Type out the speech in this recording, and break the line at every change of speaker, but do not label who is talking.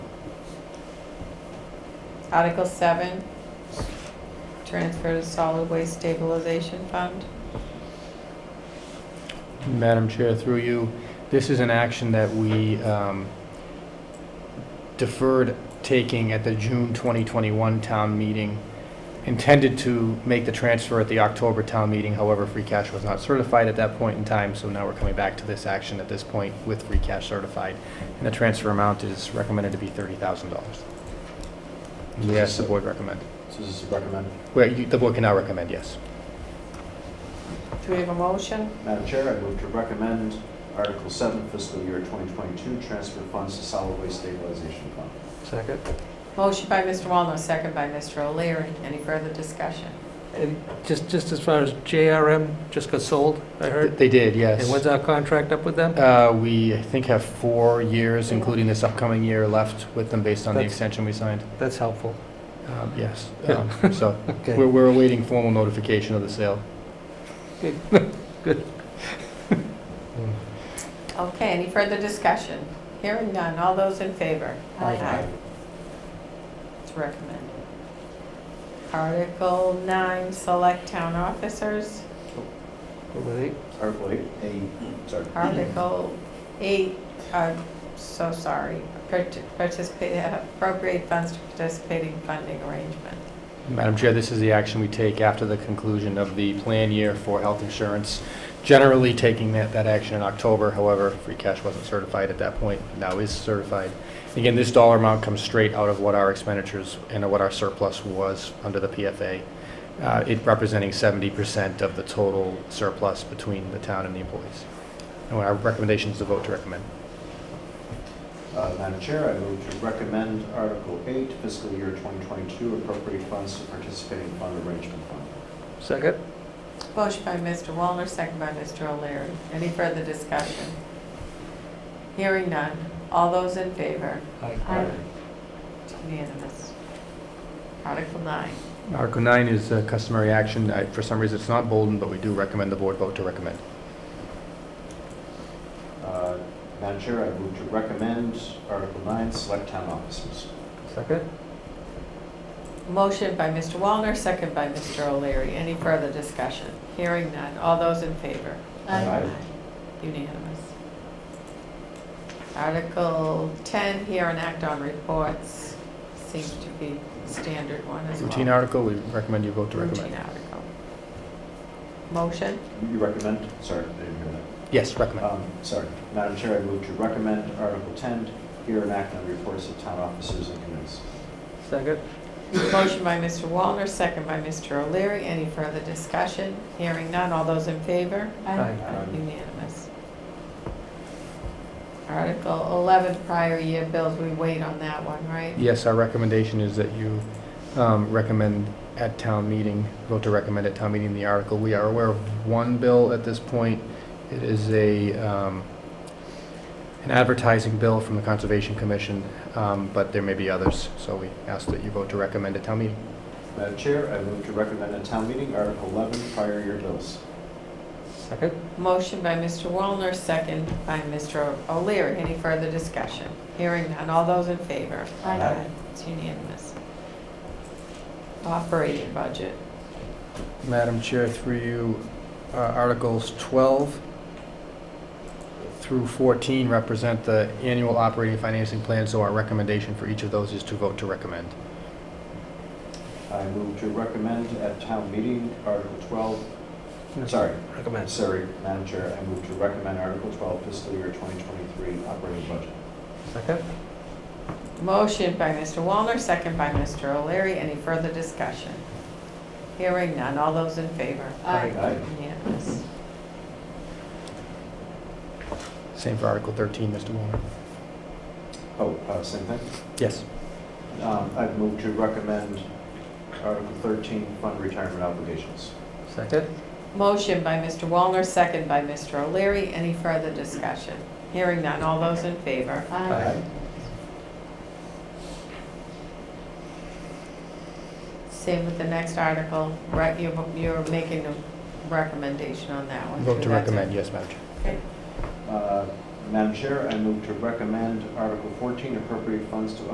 Article seven, transfer to solid waste stabilization fund.
Madam Chair, through you, this is an action that we um, deferred taking at the June 2021 town meeting, intended to make the transfer at the October town meeting, however, free cash was not certified at that point in time, so now we're coming back to this action at this point with free cash certified, and the transfer amount is recommended to be $30,000. We ask the board recommend.
So this is recommended.
Well, you- the board can now recommend, yes.
Do we have a motion?
Madam Chair, I move to recommend Article 7, fiscal year 2022, transfer funds to solid waste stabilization fund.
Second.
Motion by Mr. Walner, second by Mr. O'Leary. Any further discussion?
And just, just as far as JRM just got sold, I heard.
They did, yes.
And when's our contract up with them?
Uh, We, I think, have four years, including this upcoming year, left with them based on the
That's-
extension we signed.
That's helpful.
Um, Yes. Um, So
Okay.
we're we're awaiting formal notification of the sale.
Okay, any further discussion? Hearing none. All those in favor?
Aye.
It's recommended. Article nine, select town officers.
Over eight.
Article 8, a, sorry.
Article eight, I'm so sorry, Parti- participate, appropriate funds to participating funding arrangement.
Madam Chair, this is the action we take after the conclusion of the plan year for health insurance, generally taking that, that action in October. However, free cash wasn't certified at that point, now is certified. Again, this dollar amount comes straight out of what our expenditures and what our surplus was under the PFA, uh, it representing 70% of the total surplus between the town and the employees. And our recommendation is to vote to recommend.
Uh, Madam Chair, I move to recommend Article 8, fiscal year 2022, appropriate funds to participating fund arrangement fund.
Second.
Motion by Mr. Wallner, second by Mr. O'Leary. Any further discussion? Hearing none. All those in favor? Aye. It's unanimous. Article nine.
Article 9 is uh, customary action. I- For some reason, it's not bolden, but we do recommend the board vote to recommend.
Uh, Madam Chair, I move to recommend Article 9, select town officers.
Second.
Motion by Mr. Wallner, second by Mr. O'Leary. Any further discussion? Hearing none. All those in favor?
Aye. Aye.
Unanimous. Article 10, here and act on reports, seems to be standard one as well.
Routine article, we recommend you vote to
Routine
recommend.
article. Motion?
You recommend, sorry, I didn't hear that.
Yes, recommend.
Um, Sorry, Madam Chair, I move to recommend Article 10, hear and act on reports of town officers and committees.
Second.
Motion by Mr. Wallner, second by Mr. O'Leary. Any further discussion? Hearing none. All those in favor?
Aye.
Aye.
Unanimous. Article 11, prior year bills, we wait on that one, right?
Yes, our recommendation is that you um, recommend at town meeting, vote to recommend at town meeting the article. We are aware of one bill at this point. It is a, um, an advertising bill from the Conservation Commission, um, but there may be others, so we ask that you vote to recommend at town meeting.
Madam Chair, I move to recommend at town meeting Article 11, prior year bills.
Second.
Motion by Mr. Wallner, second by Mr. O'Leary. Any further discussion? Hearing none. All those in favor?
Aye. Aye.
It's unanimous. Operating budget.
Madam Chair, through you, uh, Articles 12 through 14 represent the annual operating financing plan, so our recommendation for each of those is to vote to recommend.
I move to recommend at town meeting Article 12, sorry,
Recommend.
sorry, Madam Chair, I move to recommend Article 12, fiscal year 2023 operating budget.
Second.
Motion by Mr. Wallner, second by Mr. O'Leary. Any further discussion? Hearing none. All those in favor?
Aye.
Aye.
Unanimous.
Same for Article 13, Mr. Warner.
Oh, uh, same thing?
Yes.
Um, I move to recommend Article 13, fund retirement obligations.
Second.
Motion by Mr. Wallner, second by Mr. O'Leary. Any further discussion? Hearing none. All those in favor?
Aye.
Same with the next article, right, you're, you're making a recommendation on that one.
Vote
too,
to
that's it.
recommend, yes, Madam Chair.
Uh, Madam Chair, I move to recommend Article 14, appropriate funds to